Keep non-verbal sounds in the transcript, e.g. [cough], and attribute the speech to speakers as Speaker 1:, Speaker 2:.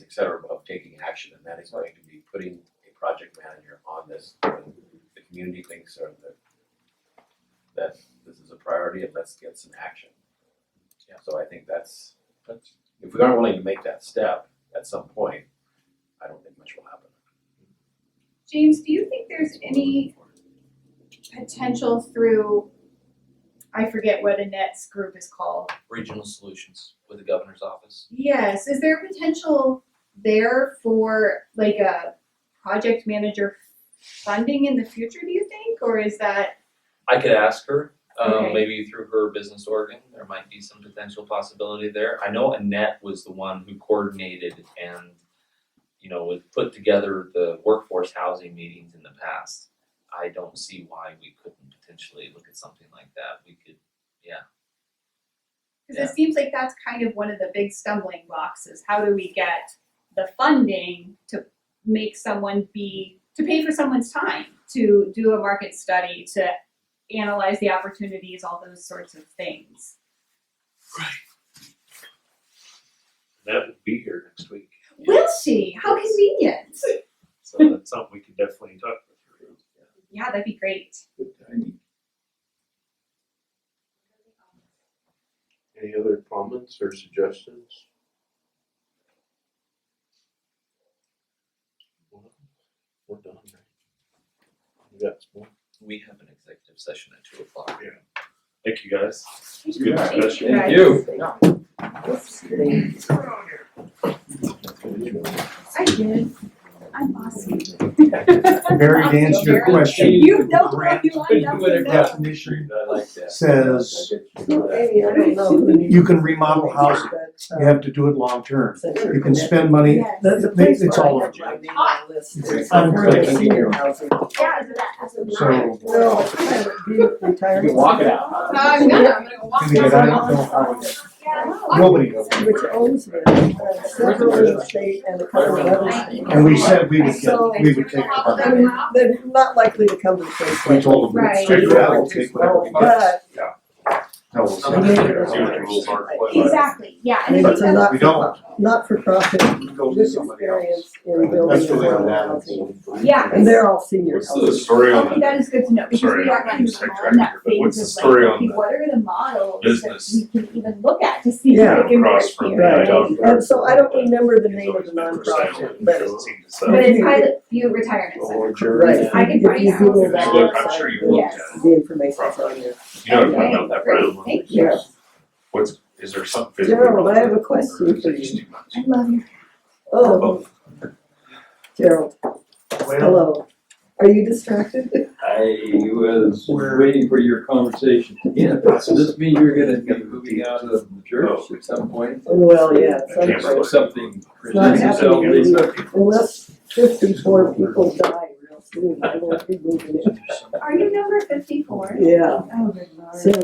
Speaker 1: et cetera, of taking action, and that is going to be putting a project manager on this. when The community thinks are that that this is a priority and let's get some action.
Speaker 2: Yeah.
Speaker 1: So I think that's,
Speaker 2: That's-
Speaker 1: if we aren't willing to make that step at some point, I don't think much will happen.
Speaker 3: James, do you think there's any potential through, I forget what Annette's group is called?
Speaker 2: Regional solutions with the governor's office.
Speaker 3: Yes, is there potential there for like a project manager funding in the future, do you think, or is that?
Speaker 2: I could ask her, um,
Speaker 3: Okay.
Speaker 2: maybe through her business organ, there might be some potential possibility there. I know Annette was the one who coordinated and, you know, was put together the workforce housing meetings in the past. I don't see why we couldn't potentially look at something like that. We could,
Speaker 3: Cause it seems like that's kind of one of the big stumbling blocks is how do we get the funding to make someone be, to pay for someone's time, to do a market study, to analyze the opportunities, all those sorts of things.
Speaker 4: That will be here next week,
Speaker 3: Will she? How convenient.
Speaker 5: [laughs]
Speaker 4: so that's something we can definitely talk about.
Speaker 3: Yeah, that'd be great.
Speaker 6: Any other comments or suggestions? Well, We're done, right? You got some more?
Speaker 2: we have an executive session at two o'clock.
Speaker 3: [laughs]
Speaker 4: Thank you, guys.
Speaker 3: Thank
Speaker 4: Good discussion.
Speaker 3: guys.
Speaker 1: Thank you.
Speaker 3: I did. I'm
Speaker 7: [laughs]
Speaker 3: awesome.
Speaker 7: Barry, to answer your question,
Speaker 3: You know what you lined up to know.
Speaker 1: Definition. I like that.
Speaker 7: Says-
Speaker 5: Maybe, I don't know.
Speaker 7: you can remodel housing, you have to do it long-term. You can spend money,
Speaker 3: Yes.
Speaker 5: That's a
Speaker 7: It-
Speaker 5: place
Speaker 7: it's
Speaker 5: where I
Speaker 7: all
Speaker 5: have
Speaker 7: over.
Speaker 5: my name on the list.
Speaker 7: It's
Speaker 5: I'm
Speaker 7: unclickable.
Speaker 5: a senior housing.
Speaker 3: Yeah, that's a
Speaker 7: so
Speaker 3: nine.
Speaker 7: can
Speaker 5: No, I would be retired.
Speaker 1: You can walk it out.
Speaker 3: No, I'm not. I'm gonna go walk.
Speaker 7: we get
Speaker 3: down.
Speaker 7: out? No, I wouldn't.
Speaker 3: Yeah.
Speaker 7: Nobody knows.
Speaker 5: Which owns it, uh, several in the state and a couple of others.
Speaker 7: And we said we would get, we would take the
Speaker 5: I
Speaker 7: money.
Speaker 5: mean, they're not likely to come to the place
Speaker 7: We
Speaker 5: like.
Speaker 7: told them,
Speaker 3: Right.
Speaker 7: figure out, we'll take whatever we get.
Speaker 5: But
Speaker 7: No, we'll
Speaker 2: Some of
Speaker 7: send
Speaker 2: the
Speaker 7: it
Speaker 2: others
Speaker 7: there.
Speaker 2: do it. rules are
Speaker 3: Exactly, yeah, and
Speaker 5: it's
Speaker 3: it's
Speaker 5: a
Speaker 3: because
Speaker 5: not
Speaker 7: We don't.
Speaker 5: for, not for profit,
Speaker 7: Go to
Speaker 5: this
Speaker 7: somebody else.
Speaker 5: experience in building
Speaker 7: That's the way
Speaker 5: affordable
Speaker 7: I'm at.
Speaker 5: housing.
Speaker 3: Yeah.
Speaker 5: And they're all seniors.
Speaker 4: What's the story on
Speaker 3: that is good to know, because
Speaker 4: Sorry,
Speaker 3: we are
Speaker 4: I'm
Speaker 3: kind of
Speaker 4: sidetracked
Speaker 3: on that
Speaker 4: here, but what's
Speaker 3: phase
Speaker 4: the
Speaker 3: of
Speaker 4: story
Speaker 3: like,
Speaker 4: on
Speaker 3: okay,
Speaker 4: the
Speaker 3: what are the models that
Speaker 4: business?
Speaker 3: we can even look at to see if
Speaker 5: Yeah,
Speaker 3: it can work
Speaker 4: across from
Speaker 3: here,
Speaker 4: the
Speaker 3: right?
Speaker 5: Right,
Speaker 4: don't-
Speaker 5: and so I don't remember the
Speaker 4: It's
Speaker 5: name of
Speaker 4: always
Speaker 5: the
Speaker 4: been for sale.
Speaker 5: nonprofit, but
Speaker 4: Doesn't seem to sell.
Speaker 3: But it's pilot few retirement centers.
Speaker 6: Or jury.
Speaker 5: Right.
Speaker 3: I can
Speaker 5: If
Speaker 3: find
Speaker 5: you
Speaker 3: out.
Speaker 5: Google
Speaker 4: If
Speaker 5: that
Speaker 4: you look, I'm
Speaker 5: website,
Speaker 4: sure you looked
Speaker 3: Yes.
Speaker 4: at it.
Speaker 5: The information's on there.
Speaker 4: You know, what I'm
Speaker 3: Okay,
Speaker 4: talking about that brown
Speaker 3: great,
Speaker 4: one.
Speaker 3: thank you.
Speaker 5: Yes.
Speaker 4: What's, is there something? physical
Speaker 5: Gerald, I have a
Speaker 4: wrong with it, or
Speaker 5: question
Speaker 4: is
Speaker 5: for
Speaker 4: it just
Speaker 5: you.
Speaker 4: too much?
Speaker 3: I love you.
Speaker 5: Oh, Gerald,
Speaker 7: Well,
Speaker 5: hello. Are you distracted?
Speaker 8: I was waiting for your conversation.
Speaker 1: Yeah.
Speaker 8: Does this mean you're gonna be moving out of the church at some point?
Speaker 5: Well, yeah,
Speaker 4: I can't remember.
Speaker 8: Or something.
Speaker 5: Not
Speaker 8: presents itself
Speaker 5: happening.
Speaker 8: later.
Speaker 5: Unless fifty-four people die real soon, I won't be moving in.
Speaker 3: Are you number fifty-four?
Speaker 5: Yeah,
Speaker 3: Oh, good lord.
Speaker 5: so